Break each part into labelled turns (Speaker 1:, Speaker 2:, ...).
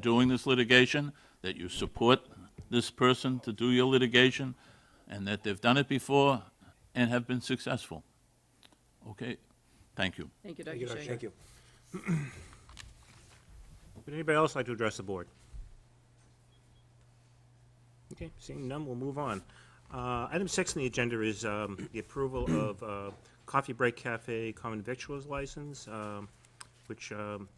Speaker 1: doing this litigation, that you support this person to do your litigation, and that they've done it before and have been successful. Okay? Thank you.
Speaker 2: Thank you, Dr. Shea.
Speaker 3: Thank you.
Speaker 4: Would anybody else like to address the board? Okay, seeing none, we'll move on. Uh, Item six on the agenda is um, the approval of uh, Coffee Break Cafe Common Victuals License, um, which um,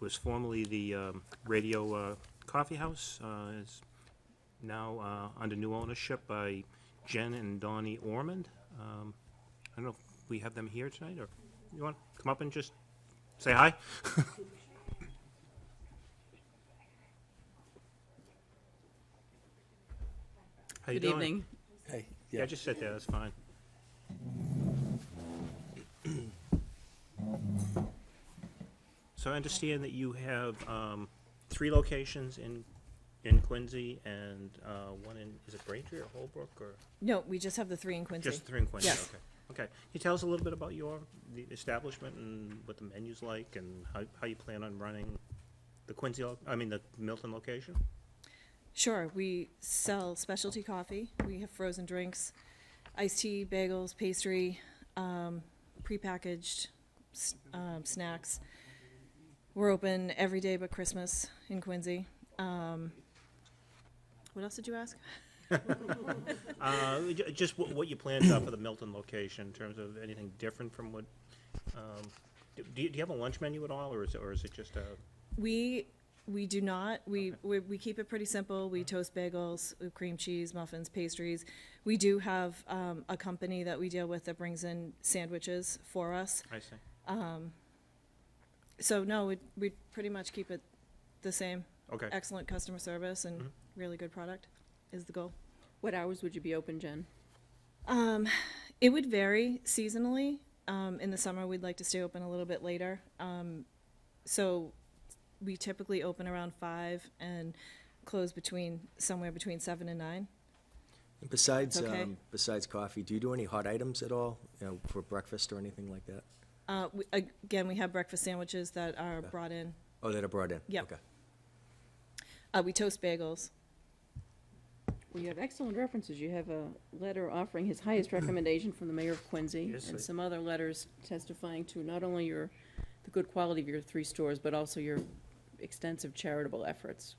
Speaker 4: was formerly the um, Radio uh, Coffee House, uh, is now uh, under new ownership by Jen and Donnie Ormond. Um, I don't know if we have them here tonight, or you want to come up and just say hi? How you
Speaker 2: Good
Speaker 4: doing?
Speaker 2: evening.
Speaker 3: Hey,
Speaker 4: Yeah,
Speaker 3: yeah,
Speaker 4: just sit there, that's fine. So I understand that you have um, three locations in, in Quincy and uh, one in, is it Braintree or Holbrook or?
Speaker 5: No, we just have the three in Quincy.
Speaker 4: Just three in Quincy, okay.
Speaker 5: Yes.
Speaker 4: Okay, can you tell us a little bit about your, the establishment and what the menu's like and how, how you plan on running the Quincy, lo- I mean, the Milton location?
Speaker 5: Sure, we sell specialty coffee. We have frozen drinks, iced tea, bagels, pastry, um, prepackaged s- um, snacks. We're open every day but Christmas in Quincy. Um, what else did you ask?
Speaker 4: Uh, ju- Just wh- what your plans are for the Milton location in terms of anything different from what, um, do do you do you have a lunch menu at all, or is it, or is it just a,
Speaker 5: We we do not. We,
Speaker 4: Okay.
Speaker 5: we we keep it pretty simple. We toast bagels, uh, cream cheese, muffins, pastries. We do have um, a company that we deal with that brings in sandwiches for us.
Speaker 4: I see?
Speaker 5: So no, we we pretty much keep it the same.
Speaker 4: Okay.
Speaker 5: Excellent customer service and really good product is the goal.
Speaker 2: What hours would you be open, Jen?
Speaker 5: It would vary seasonally. Um, in the summer, we'd like to stay open a little bit later. Um, so we typically open around five and close between somewhere between seven and nine.
Speaker 3: And besides,
Speaker 5: Okay.
Speaker 3: um, besides coffee, do you do any hot items at all, you know, for breakfast or anything like that?
Speaker 5: Uh, we, again, we have breakfast sandwiches that are brought in.
Speaker 3: Oh, that are brought in?
Speaker 5: Yep.
Speaker 3: Okay.
Speaker 5: Uh, we toast bagels.
Speaker 2: Well, you have excellent references. You have a letter offering his highest recommendation from the mayor of Quincy
Speaker 4: Yes,
Speaker 2: and
Speaker 4: I-
Speaker 2: some other letters testifying to not only your, the good quality of your three stores, but also your extensive charitable efforts.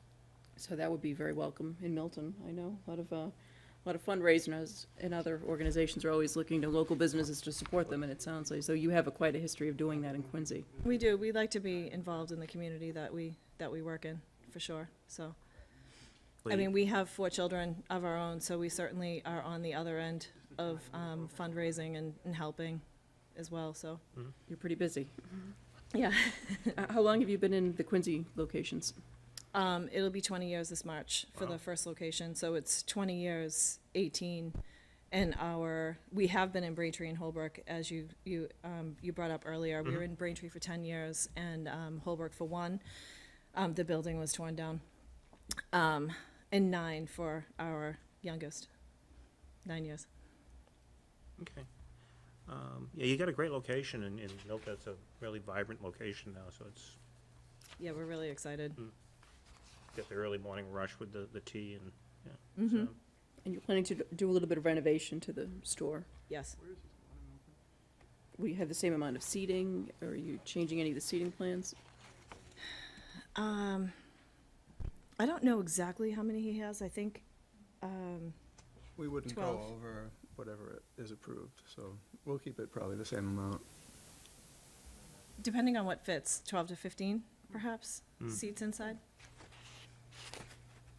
Speaker 2: So that would be very welcome in Milton, I know. A lot of, uh, a lot of fundraisers and other organizations are always looking to local businesses to support them, and it sounds like, so you have a quite a history of doing that in Quincy.
Speaker 5: We do. We like to be involved in the community that we that we work in for sure. So. I
Speaker 4: Well, you-
Speaker 5: mean, we have four children of our own, so we certainly are on the other end of um, fundraising and, and helping as well, so.
Speaker 2: You're pretty busy.
Speaker 5: Yeah.
Speaker 2: Uh, How long have you been in the Quincy locations?
Speaker 5: Um, it'll be twenty years this March for
Speaker 4: Wow.
Speaker 5: the first location, so it's twenty years, eighteen. And our, we have been in Braintree and Holbrook, as you, you, um, you brought up earlier. We were in Braintree for ten years and, um, Holbrook for one. Um, the building was torn down. Um, and nine for our youngest, nine years.
Speaker 4: Okay. Um, Yeah, you got a great location in, in Milton, it's a really vibrant location now, so it's,
Speaker 5: Yeah, we're really excited.
Speaker 4: got the early morning rush with the, the tea and, yeah.
Speaker 5: Mhm.
Speaker 4: so-
Speaker 2: And you're planning to d- do a little bit of renovation to the store?
Speaker 5: Yes.
Speaker 2: Will you have the same amount of seating? Or are you changing any of the seating plans?
Speaker 5: Um, I don't know exactly how many he has. I think, um,
Speaker 6: We wouldn't go
Speaker 5: 12.
Speaker 6: over whatever is approved, so we'll keep it probably the same amount.
Speaker 5: depending on what fits, 12 to 15 perhaps seats inside.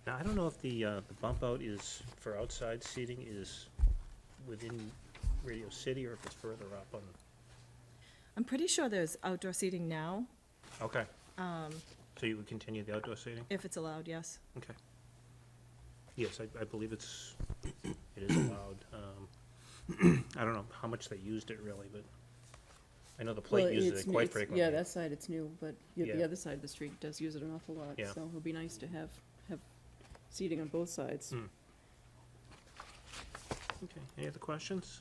Speaker 4: Now, I don't know if the, uh, the bump out is, for outside seating is within Radio City or if it's further up on,
Speaker 5: I'm pretty sure there's outdoor seating now,
Speaker 4: okay. So you would continue the outdoor seating?
Speaker 5: if it's allowed, yes.
Speaker 4: Okay. Yes, I, I believe it's, it is allowed. um, I don't know how much they used it really, but I know the plate uses it quite frequently.
Speaker 2: Yeah, that side, it's new, but y- the
Speaker 4: Yeah.
Speaker 2: other side of the street does use it an awful lot.
Speaker 4: Yeah.
Speaker 2: So it'll be nice to have, have seating on both sides.
Speaker 4: Mm. Okay, any other questions?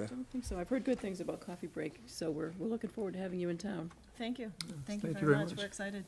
Speaker 2: I don't think so. I've heard good things about Coffee Break, so we're, we're looking forward to having you in town.
Speaker 5: Thank you. Thank you
Speaker 6: Thank
Speaker 5: very much. We're excited.